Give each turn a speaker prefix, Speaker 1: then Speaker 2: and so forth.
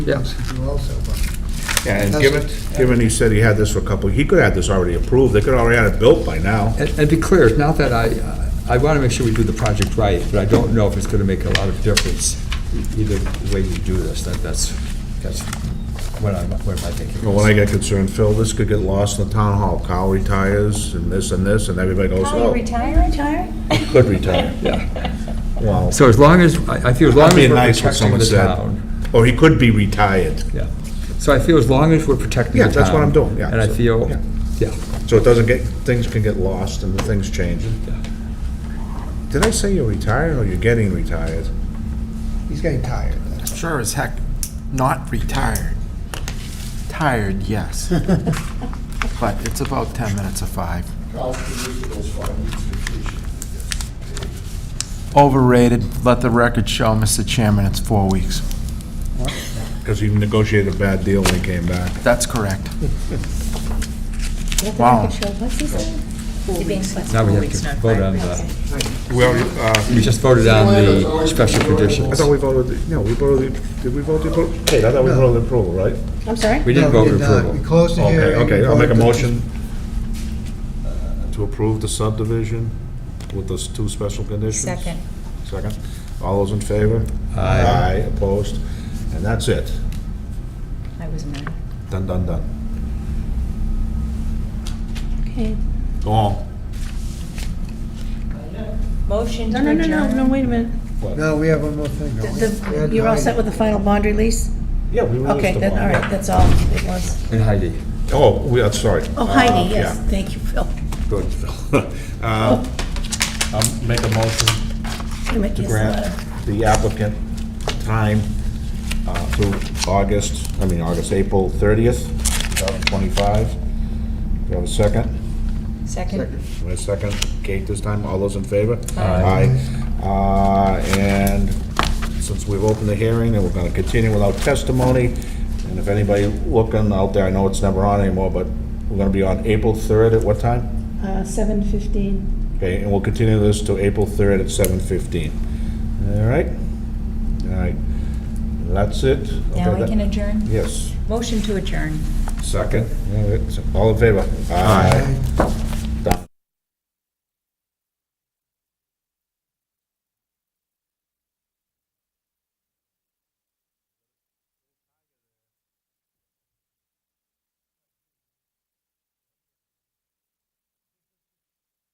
Speaker 1: Yes.
Speaker 2: do also, but
Speaker 3: And
Speaker 2: That's
Speaker 3: given, given he said he had this for a couple, he could have this already approved, they could already had it built by now.
Speaker 1: And and be clear, it's not that I, uh, I want to make sure we do the project right, but I don't know if it's going to make a lot of difference either way you do this. That That's, that's what I'm, what my thinking
Speaker 3: But when I
Speaker 1: is.
Speaker 3: get concerned, Phil, this could get lost in the town hall, Kyle retires, and this and this, and everybody goes,
Speaker 4: Are you
Speaker 3: oh,
Speaker 4: retiring?
Speaker 3: could retire.
Speaker 1: Yeah.
Speaker 3: Well,
Speaker 1: So as long as, I I feel as long as
Speaker 3: that'd be
Speaker 1: we're
Speaker 3: nice what
Speaker 1: protecting
Speaker 3: someone
Speaker 1: the
Speaker 3: said.
Speaker 1: town.
Speaker 3: Or he could be retired,
Speaker 1: Yeah. So I feel as long as we're protecting the
Speaker 3: Yeah,
Speaker 1: town.
Speaker 3: that's what I'm doing, yeah.
Speaker 1: And I
Speaker 3: So,
Speaker 1: feel,
Speaker 3: yeah.
Speaker 1: yeah.
Speaker 3: so it doesn't get, things can get lost and the things change. Did I say you're retiring or you're getting retired?
Speaker 2: he's getting tired. that's-
Speaker 5: Sure as heck not retired. Tired, yes. But it's about 10 minutes of five. Overrated. Let the record show, Mr. Chairman, it's four weeks.
Speaker 3: Because he negotiated a bad deal when he came back.
Speaker 5: That's correct. Wow.
Speaker 4: What's he saying? You're being flexible.
Speaker 1: Now we have to vote on the,
Speaker 3: We already, uh,
Speaker 1: we just voted on the special conditions.
Speaker 3: I thought we voted, the- no, we voted, the- did we vote the approval? Kate, I thought we voted the approval, right?
Speaker 4: I'm sorry?
Speaker 1: We didn't
Speaker 2: No, we
Speaker 1: vote
Speaker 2: did not. We
Speaker 1: approval.
Speaker 2: closed the
Speaker 3: Okay,
Speaker 2: hearing.
Speaker 3: okay,
Speaker 2: we
Speaker 3: I'll make a
Speaker 2: voted to-
Speaker 3: motion uh, to approve the subdivision with those two special conditions.
Speaker 4: Second.
Speaker 3: Second. All those in favor?
Speaker 1: Aye.
Speaker 3: opposed, and that's it.
Speaker 4: I was mad.
Speaker 3: Done, done, done.
Speaker 6: Okay,
Speaker 3: Go on.
Speaker 4: Motion to
Speaker 6: no, no, no, no, no,
Speaker 4: adjourn.
Speaker 6: wait a minute.
Speaker 2: No, we have one more thing,
Speaker 6: The-
Speaker 2: don't we? We
Speaker 6: the-
Speaker 2: had
Speaker 6: You're all
Speaker 2: nine.
Speaker 6: set with the final bond release?
Speaker 3: Yeah, we released
Speaker 6: Okay,
Speaker 3: them
Speaker 6: then, all right, that's all it was.
Speaker 1: And Heidi.
Speaker 3: Oh, we, are sorry.
Speaker 6: Oh,
Speaker 3: Uh,
Speaker 6: Heidi, yes, Oh.
Speaker 3: yeah.
Speaker 6: thank you, Oh, Phil.
Speaker 3: Good. Uh, I'll make a motion
Speaker 6: You might
Speaker 3: to
Speaker 6: guess that.
Speaker 3: grant the applicant time uh, through August, I mean, August, April 30th, 2025. Do you have a second?
Speaker 4: Second.
Speaker 3: Do I have a second? Kate this time, all those in favor?
Speaker 1: Aye.
Speaker 3: Aye. Uh, And since we've opened the hearing, and we're going to continue without testimony, and if anybody looking out there, I know it's never on anymore, but we're going to be on April 3rd at what time?
Speaker 6: Uh, seven fifteen.
Speaker 3: Okay, and we'll continue this to April 3rd at 7:15. All right? All right. That's it? Okay,
Speaker 4: Now I
Speaker 3: that-
Speaker 4: can adjourn?
Speaker 3: Yes,
Speaker 4: Motion to adjourn.
Speaker 3: second. All right, so All in favor?
Speaker 2: Aye.